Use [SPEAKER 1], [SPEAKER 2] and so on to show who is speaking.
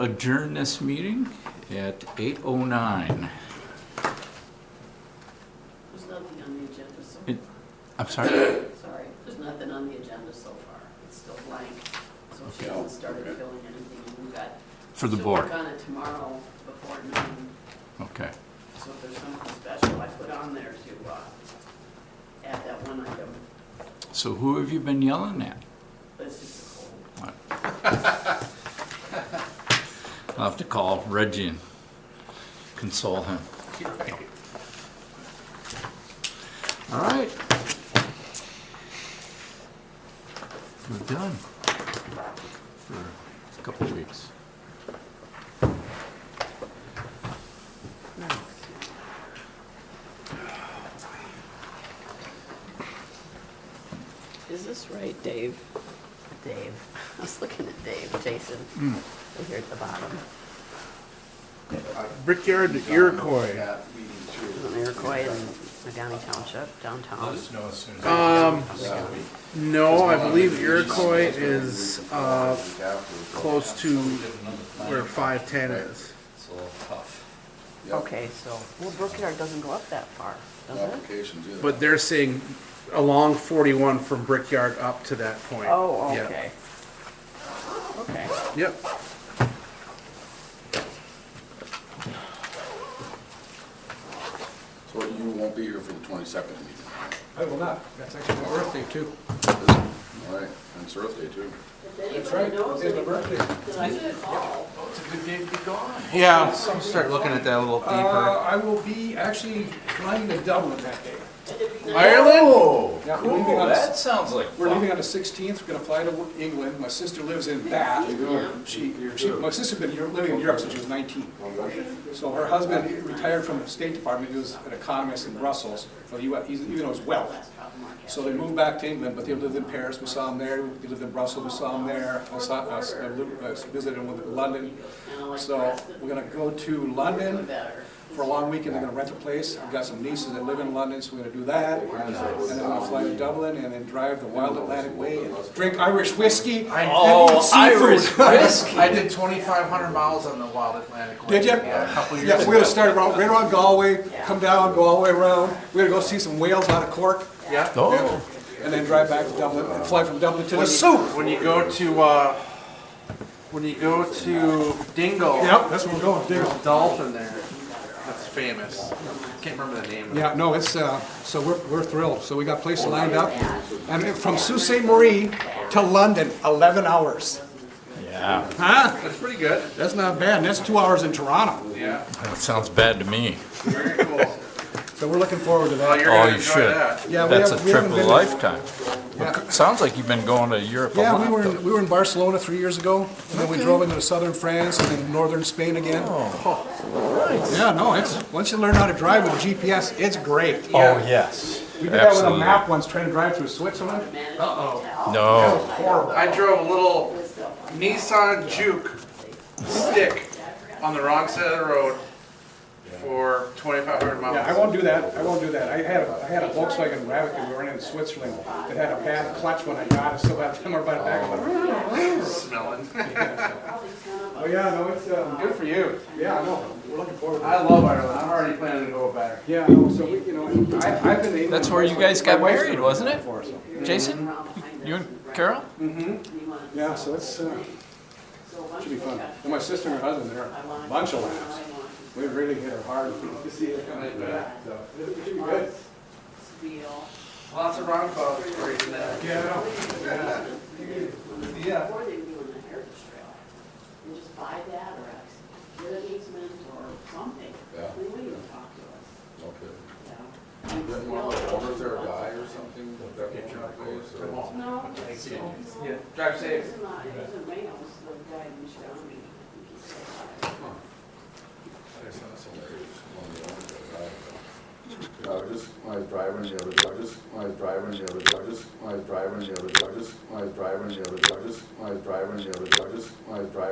[SPEAKER 1] adjourn this meeting at 8:09.
[SPEAKER 2] There's nothing on the agenda so
[SPEAKER 1] It- I'm sorry?
[SPEAKER 2] Sorry, there's nothing on the agenda so far. It's still blank, so she
[SPEAKER 3] Okay.
[SPEAKER 2] hasn't started
[SPEAKER 3] Okay.
[SPEAKER 2] filling anything. and We've got.
[SPEAKER 1] For the
[SPEAKER 2] she'll
[SPEAKER 1] board,
[SPEAKER 2] work on it tomorrow before noon,
[SPEAKER 1] okay.
[SPEAKER 2] so if there's something special I put on there to uh, add that one item.
[SPEAKER 1] So who have you been yelling at?
[SPEAKER 2] But it's just a cold.
[SPEAKER 1] I'll have to call Reggie and console him. All right. We're done for a couple of weeks.
[SPEAKER 2] Is this right, Dave? Dave. I was looking at Dave, Jason,
[SPEAKER 1] Hmm.
[SPEAKER 2] over here at the bottom.
[SPEAKER 4] Brickyard to Iroquois.
[SPEAKER 2] On Iroquois and Nagami Township, downtown.
[SPEAKER 4] Um, no, I believe Iroquois is, uh, close to where five ten is.
[SPEAKER 1] It's a little tough.
[SPEAKER 2] Okay, so, well, Brookyard doesn't go up that far, does it?
[SPEAKER 3] Applications, yeah.
[SPEAKER 4] But they're saying along forty-one from Brickyard up to that point.
[SPEAKER 2] Oh,
[SPEAKER 4] Yeah.
[SPEAKER 2] okay. Okay.
[SPEAKER 4] Yep.
[SPEAKER 3] So you won't be here for the twenty-second meeting?
[SPEAKER 5] I will not. That's actually my birthday too.
[SPEAKER 3] All right, and it's Earth Day too.
[SPEAKER 5] That's right. It's my birthday.
[SPEAKER 1] It's a good day to be gone.
[SPEAKER 4] Yeah, start looking at that a little
[SPEAKER 5] Uh, I will be actually flying to Dublin that day.
[SPEAKER 4] Ireland?
[SPEAKER 5] Yeah, we're leaving
[SPEAKER 1] Cool,
[SPEAKER 5] on the-
[SPEAKER 1] that sounds like
[SPEAKER 5] We're
[SPEAKER 1] fun.
[SPEAKER 5] leaving on the sixteenth. We're gonna fly to England. My sister lives in Bath. She, she, my sister's been Euro- living in Europe since she was nineteen. So her husband retired from the State Department. He was an economist in Brussels, well, he wa- he's- even though he's Welsh. So they moved back to England, but they lived in Paris, we saw them there, they lived in Brussels, we saw them there, I saw, I s- I li- I s- visited them in London. So we're gonna go to London for a long weekend, they're gonna rent a place, I've got some nieces that live in London, so we're gonna do that. And then I'm gonna fly to Dublin and then drive the wild Atlantic way and drink Irish whiskey. and eat
[SPEAKER 1] Oh,
[SPEAKER 5] seafood.
[SPEAKER 1] Irish whiskey.
[SPEAKER 6] I did twenty-five hundred miles on the Wild Atlantic.
[SPEAKER 5] Did you?
[SPEAKER 6] Yeah, a couple years
[SPEAKER 5] Yeah, we're
[SPEAKER 6] ago.
[SPEAKER 5] gonna start around, right around Galway, come down, go all the way around, we're gonna go see some whales out of Cork.
[SPEAKER 6] Yeah.
[SPEAKER 1] Oh,
[SPEAKER 5] and then drive back to Dublin and fly from Dublin to
[SPEAKER 6] With soup, when you go to, uh, when you go to Dingle.
[SPEAKER 5] Yep, that's where we're going.
[SPEAKER 6] There's
[SPEAKER 5] Dingle.
[SPEAKER 6] a dolphin there that's famous. Can't remember the name of it.
[SPEAKER 5] Yeah, no, it's, uh, so we're, we're thrilled. So we got places lined up. And from Sault Ste. Marie to London, 11 hours.
[SPEAKER 1] yeah,
[SPEAKER 5] Huh?
[SPEAKER 6] That's pretty good.
[SPEAKER 5] That's not bad. That's two hours in Toronto.
[SPEAKER 6] Yeah,
[SPEAKER 1] that sounds bad to me.
[SPEAKER 6] very cool.
[SPEAKER 5] So we're looking forward to
[SPEAKER 6] Well,
[SPEAKER 5] that.
[SPEAKER 6] you're
[SPEAKER 1] Oh,
[SPEAKER 6] gonna
[SPEAKER 1] you
[SPEAKER 6] enjoy
[SPEAKER 1] should.
[SPEAKER 6] that.
[SPEAKER 5] Yeah, we
[SPEAKER 1] That's a
[SPEAKER 5] have- we haven't
[SPEAKER 1] trip of
[SPEAKER 5] been
[SPEAKER 1] a
[SPEAKER 5] to-
[SPEAKER 1] lifetime.
[SPEAKER 5] Yeah.
[SPEAKER 1] Sounds like you've been going to Europe a
[SPEAKER 5] Yeah,
[SPEAKER 1] lot.
[SPEAKER 5] we were,
[SPEAKER 1] though.
[SPEAKER 5] in- we were in Barcelona three years ago, and then we drove into southern France and then northern Spain again.
[SPEAKER 1] Oh,
[SPEAKER 5] Yeah, no, it's, once you learn how to drive with GPS, it's great.
[SPEAKER 1] Oh, yes.
[SPEAKER 5] We did that with a map once, trying to drive through Switzerland.
[SPEAKER 6] Uh-oh.
[SPEAKER 1] No.
[SPEAKER 5] Horrible.
[SPEAKER 6] I drove a little Nissan Juke stick on the wrong side of the road for twenty-five hundred miles.
[SPEAKER 5] Yeah, I won't do that, I won't do that. I had, a I had a Volkswagen Rabbit that we were in in Switzerland that had a bad clutch when I got it, so by the time I brought it back, I'm like,
[SPEAKER 6] Smelling.
[SPEAKER 5] oh yeah, no, it's, um,
[SPEAKER 6] Good for you.
[SPEAKER 5] yeah, I know, we're looking forward to it.
[SPEAKER 6] I love Ireland. I'm already planning to go back.
[SPEAKER 5] Yeah, no, so we, you know, I, I've been. to
[SPEAKER 1] That's
[SPEAKER 5] England
[SPEAKER 1] where you
[SPEAKER 5] twice.
[SPEAKER 1] guys got
[SPEAKER 5] My wife's
[SPEAKER 1] married,
[SPEAKER 5] been
[SPEAKER 1] wasn't it?
[SPEAKER 5] before, so-
[SPEAKER 1] Jason, you and Carol?
[SPEAKER 5] Yeah, so it's, uh, should be fun. And my sister and her husband, they're a bunch of laughs. We really hit her hard to see it coming back, so. It should be good.
[SPEAKER 6] Lots of round calls for you today.
[SPEAKER 5] Yeah, I know.
[SPEAKER 6] Yeah.
[SPEAKER 2] Before they were doing the Heritage Trail, and just buy that or ex- get an easement or something.
[SPEAKER 3] Yeah.
[SPEAKER 2] We wouldn't even talk to us,
[SPEAKER 3] Okay.
[SPEAKER 2] you know. And
[SPEAKER 3] Then
[SPEAKER 2] still,
[SPEAKER 3] one of the owners there a
[SPEAKER 2] it's-
[SPEAKER 3] guy or something? that got one place, or-
[SPEAKER 2] No, it's- no.
[SPEAKER 6] Drive
[SPEAKER 2] It
[SPEAKER 6] safe.
[SPEAKER 2] was not, it was in Reynolds, the guy in Shawnee, I think he said.
[SPEAKER 3] That's not so bad. It's one of the owners there, I don't know. I was just, when I was driving the other, I was just, when I was driving the other, I was just, when I was driving the other, I was just, when I was driving the other, I was just, when I was driving the other, I was just, when I was driving.